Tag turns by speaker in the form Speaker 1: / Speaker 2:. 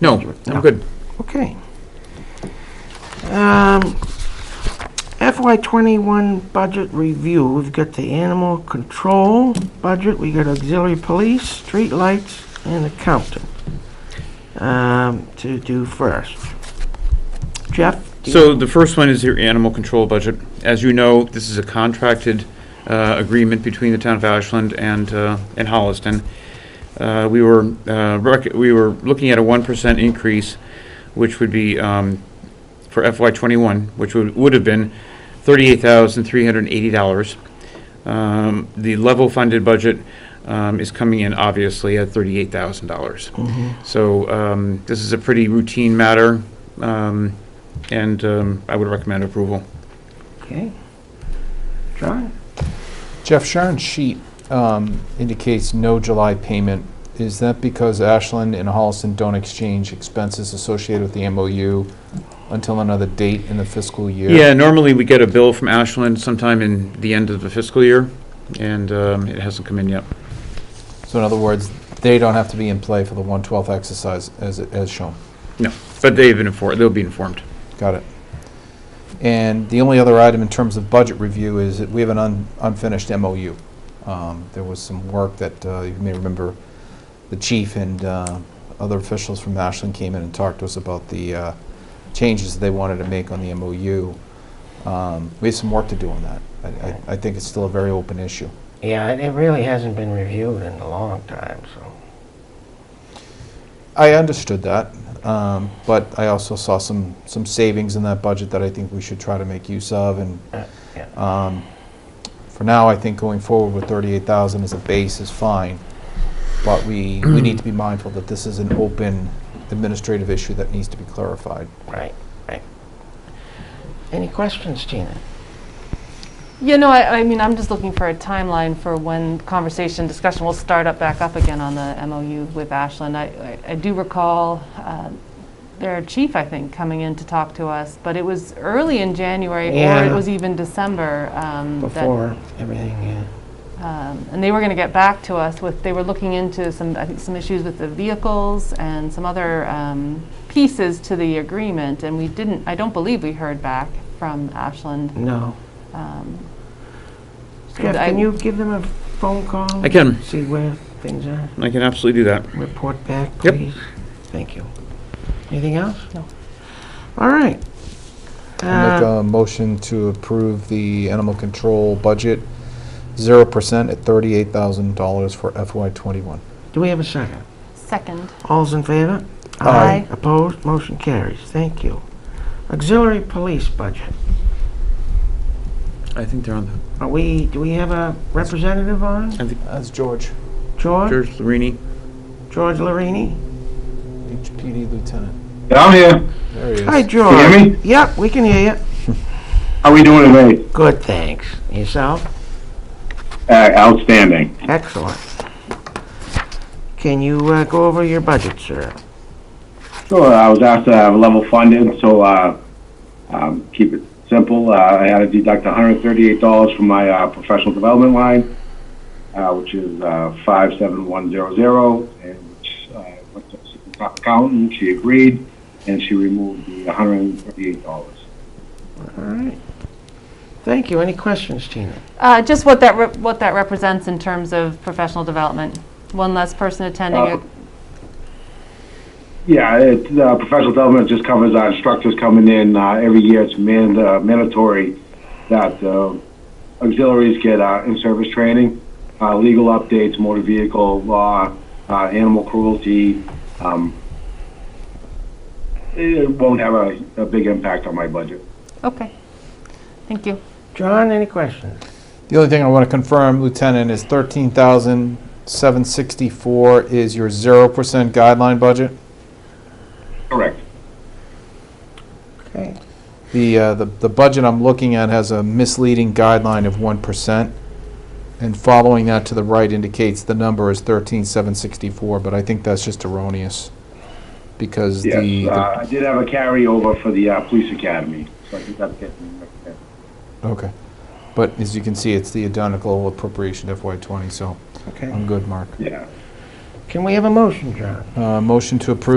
Speaker 1: No, I'm good.
Speaker 2: Okay. Um, FY twenty-one budget review, we've got the animal control budget, we got auxiliary police, street lights, and accountant, um, to do first. Jeff? do you-
Speaker 1: So the first one is your animal control budget. As you know, this is a contracted uh, agreement between the town of Ashland and, uh, and Holliston. Uh, We were, uh, rec- we were looking at a 1% increase, which would be um, for FY '21, which would, would have been $38,380. Um, The level funded budget um, is coming in obviously at $38,000. So um, this is a pretty routine matter, um, and um, I would recommend approval.
Speaker 2: Okay. John?
Speaker 3: Jeff, Sharon's sheet um, indicates no July payment. Is that because Ashland and Holliston don't exchange expenses associated with the MOU until another date in the fiscal year?
Speaker 1: Yeah, normally we get a bill from Ashland sometime in the end of the fiscal year, and um, it hasn't come in yet.
Speaker 3: So in other words, they don't have to be in play for the 112th exercise as, as shown.
Speaker 1: No, but they've been informed, they'll be informed.
Speaker 3: Got it. And the only other item in terms of budget review is that we have an un- unfinished MOU. Um, There was some work that, uh, you may remember, the chief and uh, other officials from Ashland came in and talked to us about the uh, changes they wanted to make on the MOU. Um, We have some work to do on that. I- I- I think it's still a very open issue.
Speaker 4: Yeah, it it really hasn't been reviewed in a long time, so.
Speaker 3: I understood that, um, but I also saw some, some savings in that budget that I think we should try to make use of and
Speaker 4: uh, yeah.
Speaker 3: Um, For now, I think going forward with 38,000 as a base is fine, but we, we need to be mindful that this is an open administrative issue that needs to be clarified.
Speaker 4: Right, right. Any questions, Tina?
Speaker 5: Yeah, no, I, I mean, I'm just looking for a timeline for when conversation, discussion will start up, back up again on the MOU with Ashland. I, I- I do recall uh, their chief, I think, coming in to talk to us, but it was early in January, or
Speaker 4: Yeah.
Speaker 5: it was even December. um, that-
Speaker 4: Before everything,
Speaker 2: uh,
Speaker 4: yeah.
Speaker 5: um, And they were going to get back to us with, they were looking into some, I think, some issues with the vehicles and some other um, pieces to the agreement, and we didn't, I don't believe we heard back from Ashland.
Speaker 2: No.
Speaker 5: um, so
Speaker 2: Jeff,
Speaker 5: I-
Speaker 2: can you give them a phone call?
Speaker 1: I can,
Speaker 2: See where things are?
Speaker 1: I can absolutely do that.
Speaker 2: Report back,
Speaker 1: Yep.
Speaker 2: please. Thank you. Anything else?
Speaker 5: No.
Speaker 2: All right.
Speaker 3: I'll Make
Speaker 2: Uh,
Speaker 3: a motion to approve the animal control budget, 0% at $38,000 for FY '21.
Speaker 2: Do we have a second?
Speaker 5: Second.
Speaker 2: All's in favor?
Speaker 3: Aye.
Speaker 2: Opposed? Motion carries. Thank you. Auxiliary police budget.
Speaker 1: I think they're on the,
Speaker 2: Are we, do we have a representative on?
Speaker 1: I think
Speaker 3: That's George,
Speaker 2: George?
Speaker 1: George Larini.
Speaker 2: George Larini?
Speaker 3: HPD lieutenant.
Speaker 6: Down here.
Speaker 3: There he
Speaker 2: Hi,
Speaker 3: is.
Speaker 2: George.
Speaker 6: Can you hear me?
Speaker 2: Yep, we can hear you.
Speaker 6: How we doing today?
Speaker 2: Good, thanks. Yourself?
Speaker 6: Uh, outstanding.
Speaker 2: Excellent. Can you uh, go over your budget, sir?
Speaker 6: So uh, I was asked to have level funded, so uh, um, keep it simple. Uh, I had to deduct $138 from my uh, professional development line, uh, which is uh, 57100, and which uh, went to the top accountant. She agreed, and she removed the $138.
Speaker 2: All right. Thank you. Any questions, Tina?
Speaker 5: Uh, Just what that, rep- what that represents in terms of professional development. One less person attending.
Speaker 6: Uh,
Speaker 5: it.
Speaker 6: Yeah, it, uh, professional development just covers our instructors coming in, uh, every year it's mand- uh, mandatory that, uh, auxiliaries get, uh, in-service training, uh, legal updates, motor vehicle law, uh, animal cruelty, um, it won't have a, a big impact on my budget.
Speaker 5: Okay. Thank you.
Speaker 2: John, any questions?
Speaker 3: The only thing I want to confirm, Lieutenant, is 13,764 is your 0% guideline budget?
Speaker 6: Correct.
Speaker 2: Okay.
Speaker 3: The, uh, the the budget I'm looking at has a misleading guideline of 1%, and following that to the right indicates the number is 13,764, but I think that's just erroneous, because the...
Speaker 6: Yes,
Speaker 3: the-
Speaker 6: uh, I did have a carryover for the, uh, police academy, so I think that's getting,
Speaker 3: Okay. But as you can see, it's the identical appropriation FY '20, so
Speaker 2: Okay.
Speaker 3: I'm good, Mark.
Speaker 6: yeah.
Speaker 2: Can we have a motion, John?
Speaker 3: Uh, Motion to approve